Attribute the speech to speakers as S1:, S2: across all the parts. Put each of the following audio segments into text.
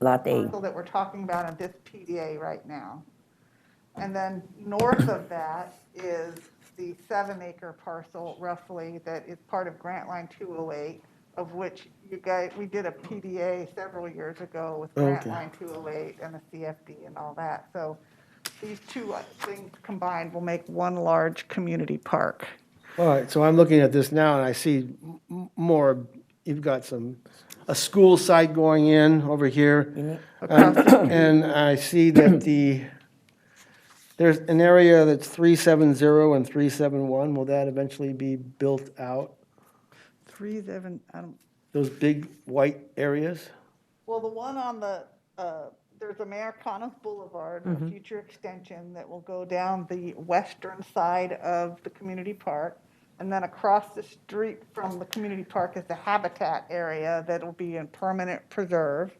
S1: Lot A.
S2: parcel that we're talking about on this PDA right now. And then north of that is the seven-acre parcel roughly that is part of Grant Line 208, of which you guys, we did a PDA several years ago with Grant
S3: Okay.
S2: Line 208 and the CFD and all that. So these two uh, things combined will make one large community park.
S3: All right, so I'm looking at this now, and I see m- m- more, you've got some, a school site going in over here. And and I see that the, there's an area that's 370 and 371. Will that eventually be built out?
S2: Three, seven, I don't,
S3: Those big white areas?
S2: Well, the one on the, uh, there's Americana Boulevard, a future extension that will go down the western side of the community park. And then across the street from the community park is the habitat area that will be in permanent preserve.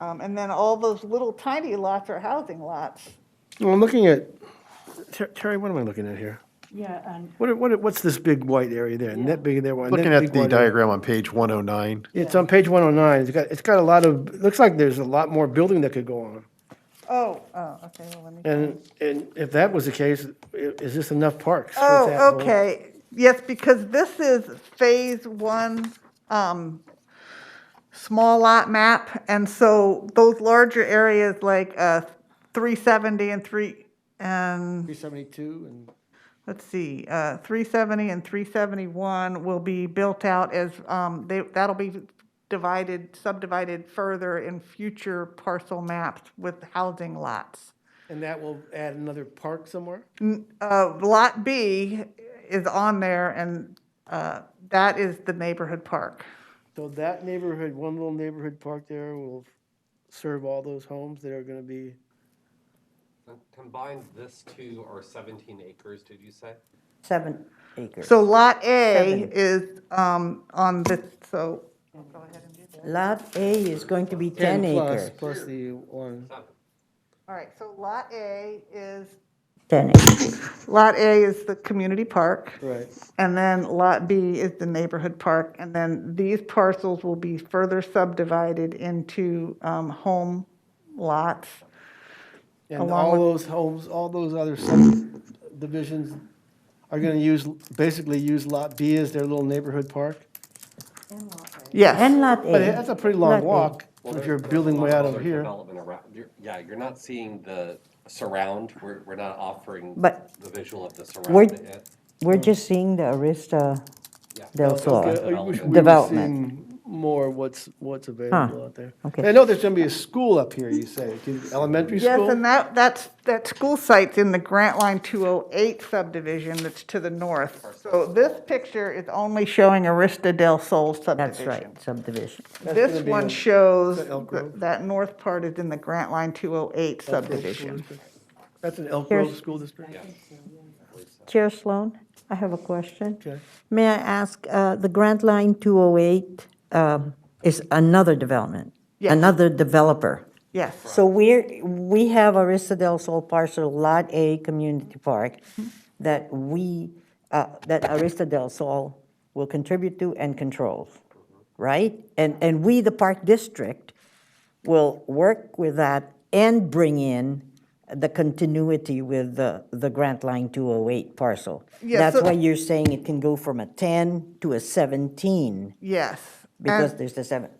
S2: Um, And then all those little tiny lots are housing lots.
S3: Well, I'm looking at, Ter- Terry, what am I looking at here?
S4: Yeah, and
S3: What, are- what, are- what's this big white area there? And that big there? and that
S5: Looking at
S3: big
S5: the
S3: white area?
S5: diagram on page 109,
S3: It's on page 109. It's got, it's got a lot of, it looks like there's a lot more building that could go on.
S2: Oh, oh, okay, well, let me.
S3: And, and if that was the case, i- is this enough parks? with that
S2: Oh,
S3: whole-
S2: okay. Yes, because this is phase one, um, small lot map. And so those larger areas like, uh, three seventy and three, and,
S3: 372 and,
S2: let's see, uh, three seventy and three seventy-one will be built out as, um, they, that'll be divided, subdivided further in future parcel maps with housing lots.
S3: and that will add another park somewhere?
S2: Uh, Lot B is on there, and uh, that is the neighborhood park.
S3: So that neighborhood, one little neighborhood park there will serve all those homes that are going to be,
S6: Com- Combined, this two are 17 acres, did you say?
S1: Seven acres.
S2: So Lot A
S1: Seven.
S2: is um, on this, so. Go ahead and do that.
S1: Lot A is going to be 10
S3: plus,
S1: acres.
S3: plus the one.
S6: Seven.
S2: All right, so Lot A is,
S1: 10 acres.
S2: Lot A is the community park,
S3: Right.
S2: and then Lot B is the neighborhood park. And then these parcels will be further subdivided into um, home lots.
S3: And
S2: Along
S3: all
S2: with-
S3: those homes, all those other subdivisions are going to use, basically use Lot B as their little neighborhood park?
S2: Yes,
S1: And Lot A.
S3: But that's a pretty long
S1: Lot A.
S3: walk
S6: Well,
S3: if
S6: there-
S3: you're
S6: there's a
S3: building
S6: lot
S3: way
S6: of
S3: out of
S6: other
S3: here.
S6: development around- you're- Yeah, you're not seeing the surround, we're, we're not offering
S1: But-
S6: the visual of the
S1: We're-
S6: surround. Uh,
S1: We're just seeing the Arista
S6: yeah.
S1: del
S3: Okay,
S1: Sol.
S3: I wish we were
S1: Development.
S3: seeing more what's, what's available out there.
S1: okay.
S3: I know there's gonna be a school up here, you say, Do you- elementary
S2: yes,
S3: school?
S2: and that, that's, that school site's in the Grant Line 208 subdivision that's to the north. So this picture is only showing Arista del Sol
S1: That's
S2: subdivision.
S1: right, subdivision.
S3: gonna
S2: This
S3: be
S2: one
S3: in-
S2: shows,
S3: that Elk
S2: th-
S3: Grove?
S2: that north part is in the Grant Line 208 subdivision.
S3: That's an Elk Grove
S1: Here's-
S3: School District?
S1: Chair Sloan, I have a question.
S3: Okay.
S1: May I ask, uh, the Grant Line 208 um, is another development?
S2: Yes.
S1: Another developer?
S2: Yes,
S1: So we're, we have Arista del Sol parcel, Lot A Community Park,
S2: Mm-hmm.
S1: that we, uh, that Arista del Sol will contribute to and controls, right? And, and we, the Park District, will work with that and bring in the continuity with the, the Grant Line 208 parcel.
S2: Yeah,
S1: That's
S2: so-
S1: why you're saying it can go from a 10 to a 17,
S2: yes.
S1: because
S2: And-
S1: there's the seven,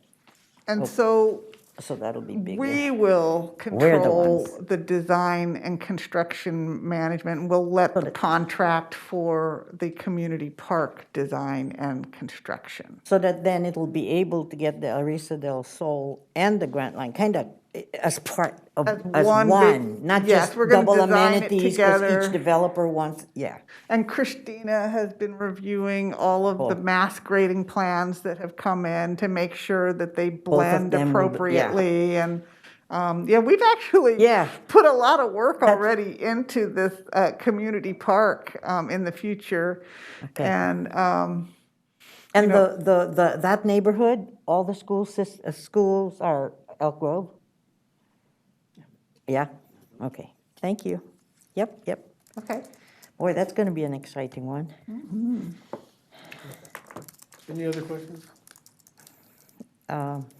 S2: And so
S1: so that'll be bigger.
S2: we will
S1: We're the
S2: control
S1: ones.
S2: the design and construction management. and We'll let the contract for the community park design and construction.
S1: So that then it'll be able to get the Arisa del Sol and the Grant Line, kind of as part of,
S2: As
S1: as
S2: one big-
S1: one, not
S2: yes,
S1: just
S2: we're gonna
S1: double
S2: design it
S1: amenities, because
S2: together.
S1: each developer wants, yeah.
S2: And Christina has been reviewing all of the mass grading plans that have come in to make sure that they blend
S1: them will be- yeah.
S2: appropriately. And, um, yeah, we've actually
S1: Yeah.
S2: put a lot of work already into this uh, community park um, in the future.
S1: Okay.
S2: And, um,
S1: And the, the, the, that neighborhood, all the school sys, uh, schools are Elk Grove? Yeah, okay, thank you. Yep, yep.
S2: okay,
S1: Boy, that's gonna be an exciting one.
S3: Any other questions?
S1: Um,